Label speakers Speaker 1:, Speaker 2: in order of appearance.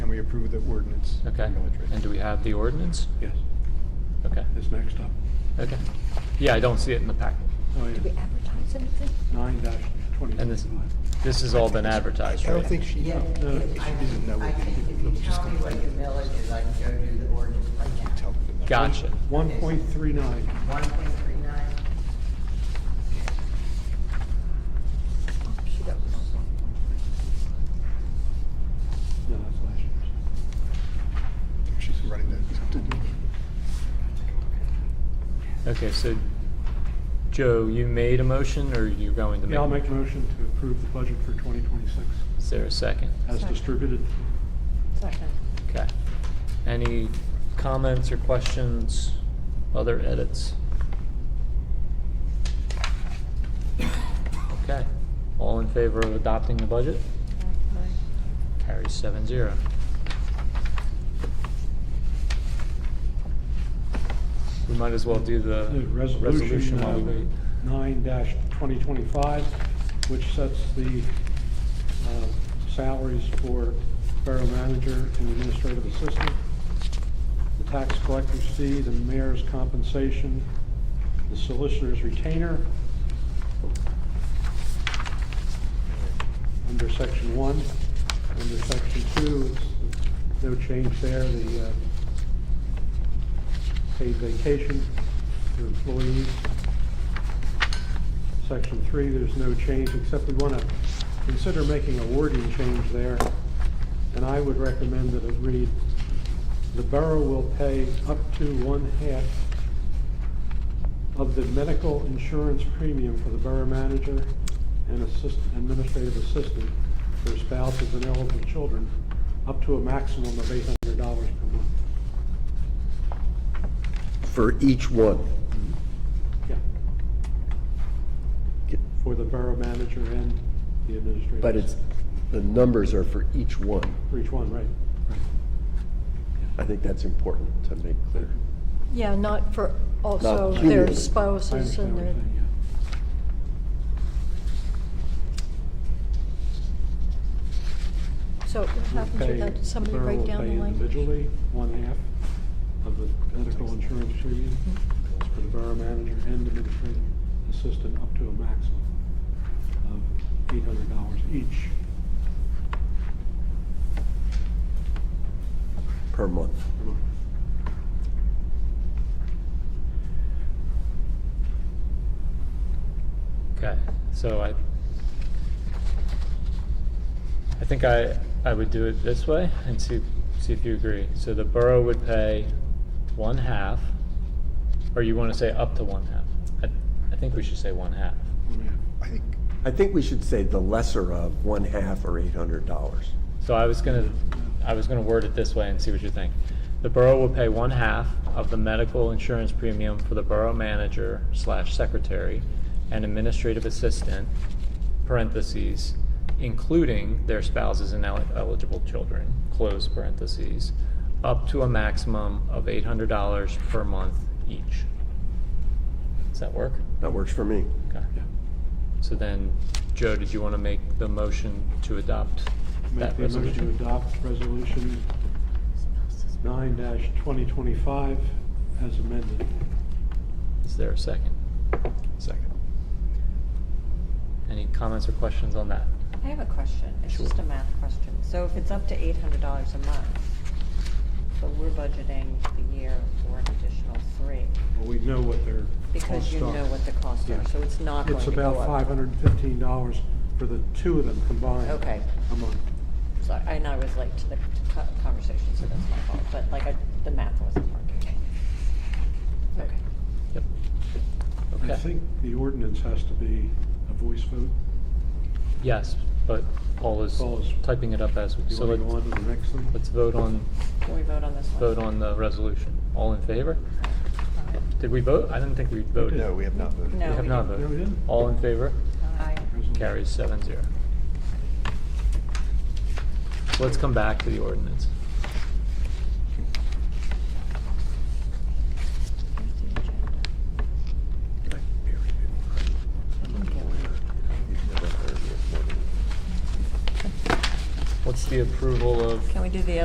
Speaker 1: approve the ordinance.
Speaker 2: Okay.
Speaker 1: Military.
Speaker 2: And do we have the ordinance?
Speaker 1: Yes,
Speaker 2: Okay,
Speaker 1: it's next up.
Speaker 2: okay. Yeah, I don't see it in the packet.
Speaker 1: Oh,
Speaker 3: Do we
Speaker 1: yeah,
Speaker 3: advertise anything?
Speaker 1: nine dash twenty.
Speaker 2: And this, this has all been advertised,
Speaker 1: I
Speaker 2: right?
Speaker 1: don't think she,
Speaker 4: Yeah,
Speaker 1: no,
Speaker 4: if-
Speaker 1: no, she
Speaker 4: I
Speaker 1: doesn't know.
Speaker 4: I
Speaker 1: what
Speaker 4: think
Speaker 1: we
Speaker 4: if
Speaker 1: did.
Speaker 4: you
Speaker 1: I'm just
Speaker 4: tell me what
Speaker 1: gonna-
Speaker 4: your millage is, I can go do the ordinance right now.
Speaker 1: tell them.
Speaker 2: Gotcha.
Speaker 1: One point three nine.
Speaker 4: One point three nine.
Speaker 3: Okey-doke.
Speaker 1: No, that's last year's. She's running that.
Speaker 2: Okay, so, Joe, you made a motion, or you're going to make?
Speaker 1: Yeah, I'll make a motion to approve the budget for twenty twenty-six
Speaker 2: Is there a second?
Speaker 1: as
Speaker 3: Second.
Speaker 1: distributed.
Speaker 3: Second.
Speaker 2: Okay. Any comments or questions, other edits? Okay, all in favor of adopting the budget? Carries seven zero. We might as well do the
Speaker 1: The
Speaker 2: resolution
Speaker 1: Resolution
Speaker 2: while we wait.
Speaker 1: nine twenty twenty-five, which sets the uh, salaries for borough manager and administrative assistant, the tax collector's fee, the mayor's compensation, the solicitor's retainer. Under section one, under section two, it's no change there, the uh, paid vacation for employees. Section three, there's no change, except we want to consider making a wording change there. And I would recommend that it read, "The borough will pay up to one-half of the medical insurance premium for the borough manager and assist, administrative assistant, their spouses and eligible children, up to a maximum of eight hundred dollars per month."
Speaker 5: For each one.
Speaker 1: Yeah. For the borough manager and the administrator.
Speaker 5: But it's, the numbers are for each one.
Speaker 1: For each one, right.
Speaker 5: I think that's important to make clear.
Speaker 3: Yeah, not for, also
Speaker 5: Not
Speaker 3: their
Speaker 5: cumulative.
Speaker 1: I
Speaker 3: spouses
Speaker 1: understand
Speaker 3: and
Speaker 1: what you're
Speaker 3: their,
Speaker 1: saying, yeah.
Speaker 3: so what happens
Speaker 1: Pay-
Speaker 3: with that, Does somebody
Speaker 1: borough
Speaker 3: break
Speaker 1: will
Speaker 3: down
Speaker 1: pay
Speaker 3: the language?
Speaker 1: Individually, one half of the medical insurance premium for the borough manager and administrative assistant up to a maximum of eight hundred dollars each
Speaker 5: Per month.
Speaker 1: per month.
Speaker 2: Okay, so I, I think I, I would do it this way and see, see if you agree. So the borough would pay one half, or you want to say up to one half? I, I think we should say one half.
Speaker 1: One half.
Speaker 5: I think. I think we should say the lesser of one half or eight hundred dollars.
Speaker 2: So I was gonna, I was gonna word it this way and see what you think. The borough will pay one half of the medical insurance premium for the borough manager slash secretary and administrative assistant, parentheses, including their spouses and el- eligible children, close parentheses, up to a maximum of eight hundred dollars per month each. Does that work?
Speaker 5: That works for me.
Speaker 2: Okay.
Speaker 1: Yeah.
Speaker 2: So then, Joe, did you wanna make the motion to adopt
Speaker 1: Make
Speaker 2: that
Speaker 1: the motion to
Speaker 2: resolution?
Speaker 1: adopt resolution nine twenty twenty-five as amended.
Speaker 2: Is there a second?
Speaker 5: Second.
Speaker 2: Any comments or questions on that?
Speaker 6: I have a question. It's
Speaker 2: Sure.
Speaker 6: just a math question. So if it's up to eight hundred dollars a month, but we're budgeting the year for an additional three,
Speaker 1: Well, we know what their
Speaker 6: because
Speaker 1: costs
Speaker 6: you
Speaker 1: are.
Speaker 6: know what the costs
Speaker 1: Yeah.
Speaker 6: are, so it's not going
Speaker 1: It's
Speaker 6: to go
Speaker 1: about
Speaker 6: up.
Speaker 1: five hundred and fifteen dollars for the two of them combined.
Speaker 6: Okay.
Speaker 1: A month.
Speaker 6: So, and I was late to the co- conversation, so that's my fault, but like, I, the math wasn't working. Okay.
Speaker 2: Yep.
Speaker 1: I
Speaker 2: Okay.
Speaker 1: think the ordinance has to be a voice vote.
Speaker 2: Yes, but Paul is
Speaker 1: Paul is-
Speaker 2: typing it up as,
Speaker 1: Do you
Speaker 2: so
Speaker 1: want to go
Speaker 2: let's,
Speaker 1: on to the next one?
Speaker 2: let's vote on,
Speaker 6: Can we vote on this one?
Speaker 2: vote on the resolution. All in favor? Did we vote? I didn't think we voted.
Speaker 1: No, we have not voted.
Speaker 2: We
Speaker 6: No,
Speaker 2: have
Speaker 6: we
Speaker 2: not
Speaker 1: No, we
Speaker 2: voted.
Speaker 1: didn't.
Speaker 2: All in favor?
Speaker 6: Aye.
Speaker 1: Resolution.
Speaker 2: Carries seven zero. So let's come back to the ordinance. What's the approval of?
Speaker 6: Can we do the